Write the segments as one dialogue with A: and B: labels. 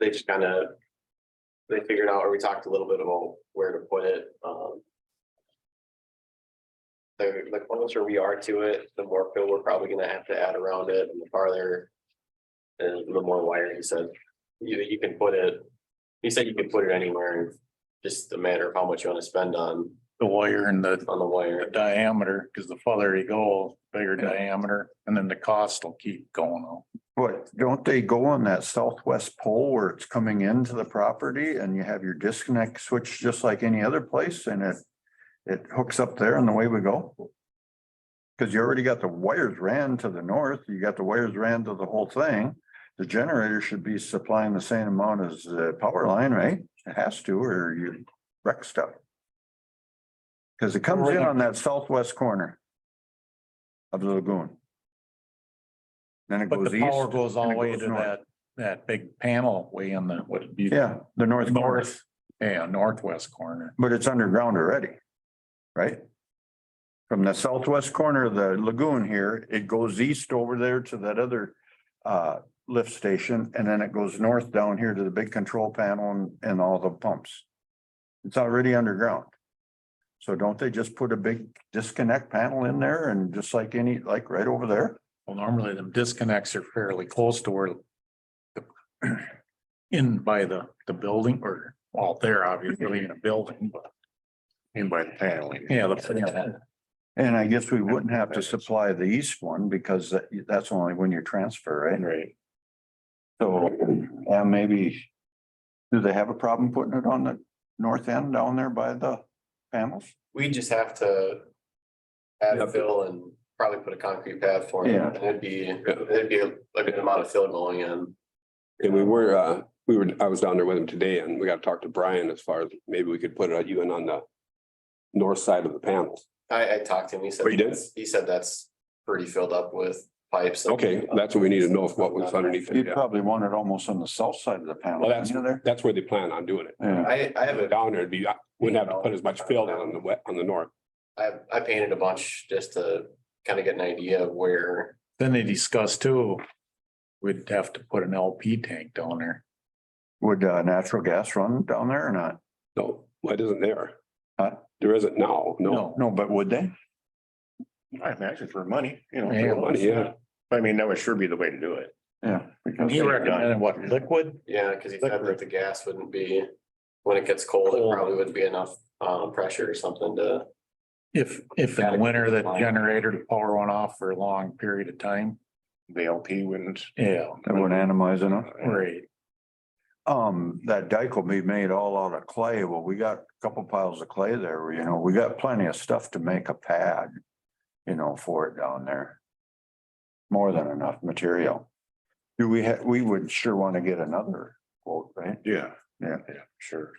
A: they just kind of. They figured out, or we talked a little bit about where to put it, um. The, the closer we are to it, the more fill we're probably gonna have to add around it and the farther. And the more wire he said, you, you can put it, he said you can put it anywhere, just a matter of how much you wanna spend on,
B: the wire and the
A: on the wire.
B: diameter, because the farther you go, bigger diameter, and then the cost will keep going up.
C: But don't they go on that southwest pole where it's coming into the property and you have your disconnect switch just like any other place and it. It hooks up there and the way we go. Cause you already got the wires ran to the north, you got the wires ran to the whole thing. The generator should be supplying the same amount as the power line, right? It has to, or you wreck stuff. Cause it comes in on that southwest corner. Of the lagoon. Then it
B: But
C: goes
B: the
C: east.
B: power goes all
C: and
B: the
C: it
B: way
C: goes
B: to
C: north.
B: that, that big panel way in the, what would be?
C: Yeah, the north corner,
B: North, yeah, northwest corner.
C: but it's underground already, right? From the southwest corner of the lagoon here, it goes east over there to that other uh lift station, and then it goes north down here to the big control panel and and all the pumps. It's already underground. So don't they just put a big disconnect panel in there and just like any, like right over there?
B: Well, normally them disconnects are fairly close to where the in by the, the building or, well, they're obviously in a building, but
D: In by the panel. you mean.
B: yeah, the,
C: And I guess we wouldn't have to supply the east one because that that's only when you transfer, right?
D: Right.
C: So, yeah, maybe, do they have a problem putting it on the north end down there by the panels?
A: We just have to. Add fill and probably put a concrete pad for it,
C: Yeah.
A: and it'd be, it'd be a good amount of fill going in.
E: And we were, uh, we were, I was down there with him today and we got to talk to Brian as far as maybe we could put it even on the north side of the panels.
A: I, I talked to him, he said.
E: Oh, you did?
A: that's- He said that's pretty filled up with pipes. and-
E: Okay, that's what we need to know, if what was underneath it.
C: You'd
E: yeah.
C: probably want it almost on the south side of the panel,
E: Well, that's-
C: you know there?
E: That's where they plan on doing it.
C: Yeah,
A: I, I have a,
E: Down there, it'd be, wouldn't have to put as much fill down on the wet, on the north.
A: I, I painted a bunch just to kind of get an idea of where,
B: then they discussed too. We'd have to put an LP tank down there.
C: would uh natural gas run down there or not?
E: No, it isn't there.
C: Huh?
E: There isn't now, no.
C: No, but would they?
D: I imagine for money, you know.
B: Yeah.
D: for money,
E: Yeah.
D: I mean, that would sure be the way to do it.
C: Yeah. because
B: He recommended what, liquid?
A: yeah, because he said that the gas wouldn't be, when it gets cold, it probably wouldn't be enough, um, pressure or something to.
B: If, if in the winter that generator to power went off for a long period of time,
D: The LP wouldn't.
B: yeah,
C: That would animize enough.
B: right.
C: Um, that dike will be made all out of clay. Well, we got a couple piles of clay there, you know, we got plenty of stuff to make a pad. You know, for it down there. More than enough material. Do we have, we would sure want to get another quote, right?
D: Yeah.
C: Yeah.
D: Yeah, sure.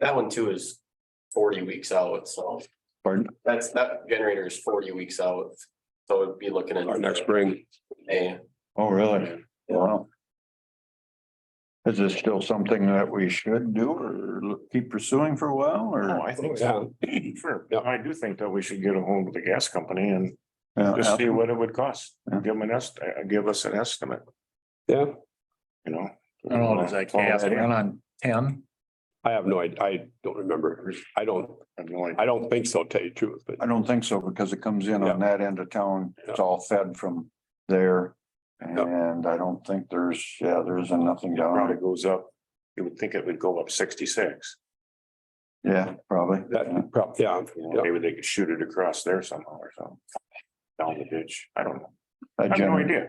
A: That one too is forty weeks out, so
C: Pardon?
A: that's, that generator is forty weeks out. So it'd be looking at.
E: Our next spring,
A: May.
C: Oh, really? Wow. Is this still something that we should do or l- keep pursuing for a while
D: Oh,
C: or?
D: I think so. Sure.
E: Yeah.
D: I do think that we should get a hold of the gas company and
C: Yeah,
D: just see what it would cost.
C: Yeah.
D: Give them an est, uh, give us an estimate,
E: yeah,
D: you know.
B: I don't know, does that gas run on ten?
E: I have no, idea. I don't remember. I don't,
D: I've no idea.
E: I don't think so, to tell you the truth, but
C: I don't think so, because it comes in on that end of town, it's all fed from there. And I don't think there's, yeah, there isn't nothing down,
D: Probably
C: there.
D: goes up. You would think it would go up sixty-six.
C: yeah, probably.
E: that, prob- yeah,
D: You
E: Yeah.
D: know, Maybe they could shoot it across there somehow or something. Down the ditch. I don't know.
C: That
D: I have no
C: generator-
D: idea.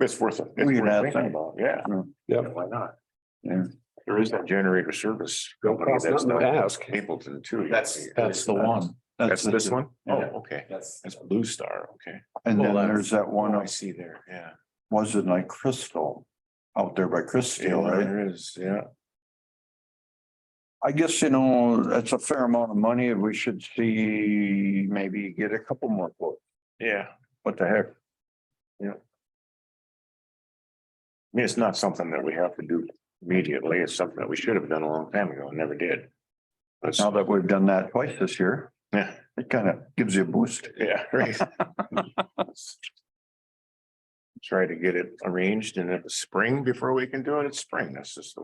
D: It's worth it. It's
C: We can
D: worth
C: ask
D: thinking
C: them.
D: about, Yeah.
E: yeah.
D: Why not?
C: Yeah.
D: There is that generator service.
E: Don't
D: company
E: cost
D: that's
E: nothing to
D: not
E: ask.
D: Mapleton too.
A: That's-
B: That's the one.
D: That's this one? Oh,
A: Yeah.
D: okay.
A: That's,
D: That's Blue Star, okay.
C: And
B: Well,
C: then
B: that's-
C: there's that one,
D: Oh,
C: up-
D: I see there, yeah.
C: was it like Crystal? Out there by
D: Yeah,
C: Crystal, right?
D: There is, yeah.
C: I guess, you know, that's a fair amount of money, we should see, maybe get a couple more quotes,
D: Yeah.
C: what the heck?
D: I mean, it's not something that we have to do immediately. It's something that we should have done a long time ago and never did. That's,
C: Now that we've done that twice this year,
D: yeah,
C: it kind of gives you a boost.
D: yeah, right. try to get it arranged and if it's spring before we can do it, it's spring. That's just the